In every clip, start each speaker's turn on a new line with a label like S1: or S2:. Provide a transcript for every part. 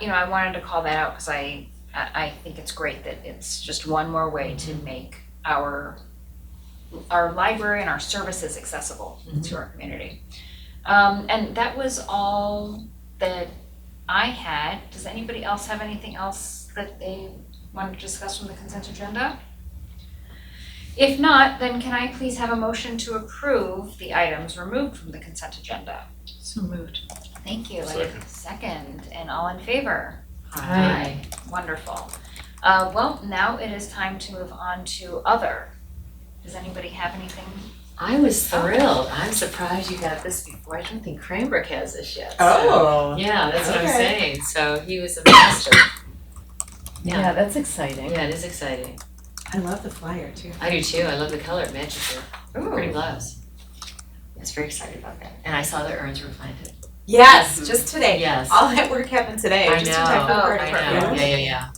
S1: you know, I wanted to call that out because I, I, I think it's great that it's just one more way to make our, our library and our services accessible to our community. Um, and that was all that I had. Does anybody else have anything else that they wanted to discuss from the consent agenda? If not, then can I please have a motion to approve the items removed from the consent agenda?
S2: So moved.
S1: Thank you. And Second, and all in favor?
S2: Aye.
S1: Wonderful. Uh, well, now it is time to move on to other. Does anybody have anything?
S2: I was thrilled. I'm surprised you got this before. I don't think Cranbrook has this yet. so-
S3: Oh.
S2: Yeah, that's what I'm
S3: Okay.
S2: saying. So he was a master. Yeah.
S3: Yeah, that's exciting.
S2: Yeah, it is exciting.
S3: I love the flyer too.
S2: I do too. I love the color. It matches your pretty
S1: Ooh,
S2: gloves. I was very excited about that. And I saw the urns were planted.
S3: Yes, just today.
S2: Yes.
S3: All that work happened today,
S2: I
S3: just in time for
S1: know.
S3: part
S1: Oh,
S3: of
S2: I
S3: our-
S2: know. Yeah, yeah, yeah.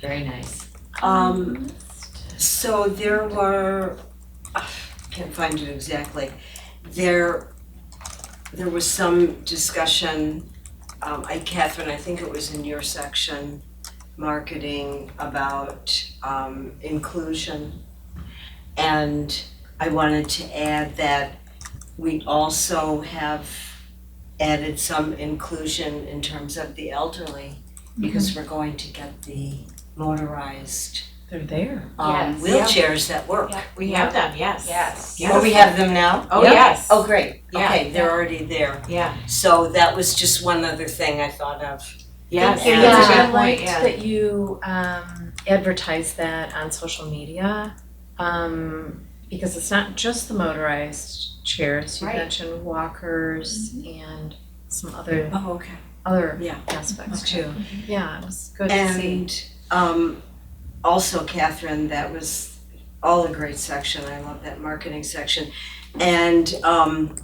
S2: Very nice.
S4: Um, so there were, I can't find it exactly, there, there was some discussion, um, I, Catherine, I think it was in your section, marketing about, um, inclusion. And I wanted to add that we also have added some inclusion in terms of the elderly, because we're going to get the motorized
S3: They're there.
S4: um,
S1: Yes.
S4: wheelchairs that work.
S1: Yeah.
S3: We have them, yes.
S1: Yes.
S3: Yeah.
S4: Oh, we have them now?
S3: Oh, yes.
S4: Oh, great.
S3: Yeah.
S4: Okay, they're already there.
S3: Yeah.
S4: So that was just one other thing I thought of. you.
S3: Yes. That's a
S5: Yeah,
S3: good
S5: I
S3: point,
S5: liked
S3: yeah.
S5: that you um advertised that on social media. Um because it's not just the motorized chairs, you
S1: Right.
S5: mentioned walkers and some other
S4: Oh, okay.
S5: other
S4: Mm-hmm. Yeah. Mm-hmm.
S5: aspects too. Yeah, it was good to see.
S4: And um, also Catherine, that was all a great section. I love that marketing section. And um,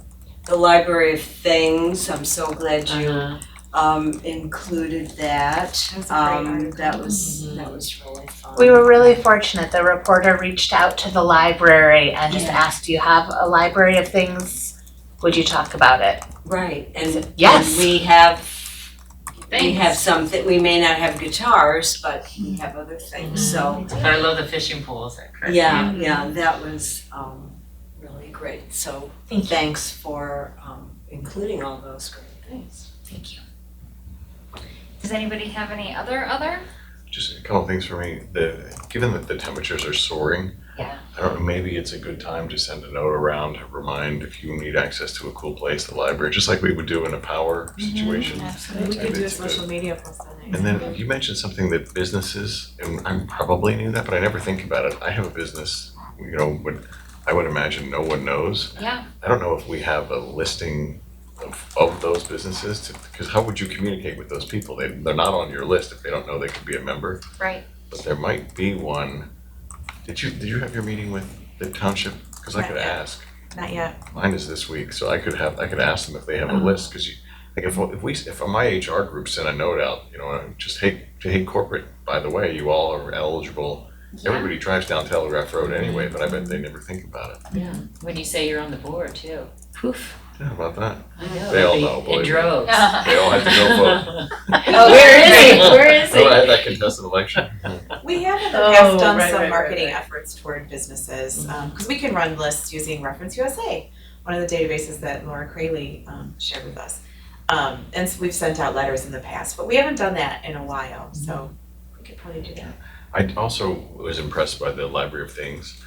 S4: the Library of Things, I'm so glad you
S2: Uh-huh.
S4: um, included that.
S1: That's a great
S4: Um,
S1: article.
S4: that was, that was really fun.
S6: Mm-hmm. We were really fortunate. The reporter reached out to the library and just asked, "Do you have a library of things? Would you talk about it?"
S4: Right, and
S6: Yes.
S4: and we have We have something, we may not have guitars, but we have other things, so,
S2: But I love the fishing pools. Is that correct?
S4: yeah, yeah, that was, um, really great, so thanks for, um, including all those great things.
S1: Thank you. Does anybody have any other other?
S7: Just a couple things for me. The, given that the temperatures are soaring,
S1: Yeah.
S7: I don't know, maybe it's a good time to send a note around to remind if you need access to a cool place, the library, just like we would do in a power situation.
S3: We
S7: Maybe
S3: could do a
S7: it's a good-
S3: social media post on it.
S7: And then you mentioned something that businesses, and I probably knew that, but I never think about it. I have a business, you know, what I would imagine no one knows.
S1: Yeah.
S7: I don't know if we have a listing of, of those businesses to, because how would you communicate with those people? They, they're not on your list if they don't know they could be a member.
S1: Right.
S7: but there might be one. Did you, did you have your meeting with the township? Cause I could
S3: Not yet.
S7: ask,
S3: Not yet.
S7: mine is this week, so I could have, I could ask them if they have a list, cause you, like if, if we, if my HR group sent a note out, you know, just hey, to hey corporate, by the way, you all are eligible. Everybody drives down Telegraph Road anyway, but I bet they never think about it.
S2: When you say you're on the board too. Poof.
S7: Yeah, about that.
S2: I know.
S7: They all know, believe
S2: In
S7: me.
S2: droves.
S6: Oh,
S7: They all have to go vote.
S2: Oh, where is he? Where is he?
S7: Oh, I had that contested election.
S3: We have in the
S5: Oh,
S3: past done
S5: right, right,
S3: some
S5: right,
S3: marketing
S5: right.
S3: efforts toward businesses, um, cause we can run lists using Reference USA, one of the databases that Laura Crayley, um, shared with us. Um, and so we've sent out letters in the past, but we haven't done that in a while, so we could probably do that.
S7: I also was impressed by the Library of Things.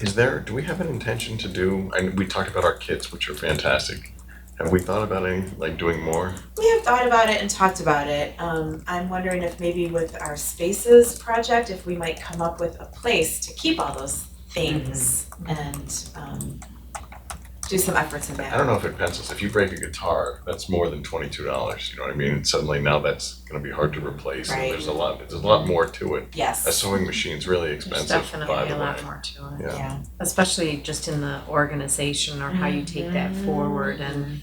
S7: Is there, do we have an intention to do, and we talked about our kits, which are fantastic. Have we thought about any, like doing more?
S3: We have thought about it and talked about it. Um, I'm wondering if maybe with our spaces project, if we might come up with a place to keep all those things and um, do some efforts in that.
S7: I don't know if it pencils. If you break a guitar, that's more than twenty-two dollars, you know what I mean? And suddenly now that's gonna be hard to replace and
S3: Right.
S7: there's a lot, there's a lot more to it. A
S3: Yes.
S7: sewing machine's really
S5: There's
S7: expensive, by
S5: definitely
S7: the
S5: a lot
S7: way.
S5: more to it,
S7: Yeah.
S3: Yeah.
S5: especially just in the organization or how you take that forward and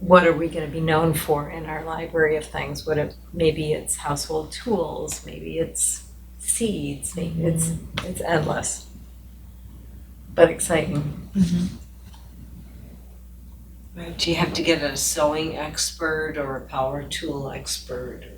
S5: what are we gonna be known for in our library of things? What if, maybe it's household tools, maybe it's seeds, maybe it's, it's endless. But exciting.
S4: Right, do you have to get a sewing expert or a power tool expert or-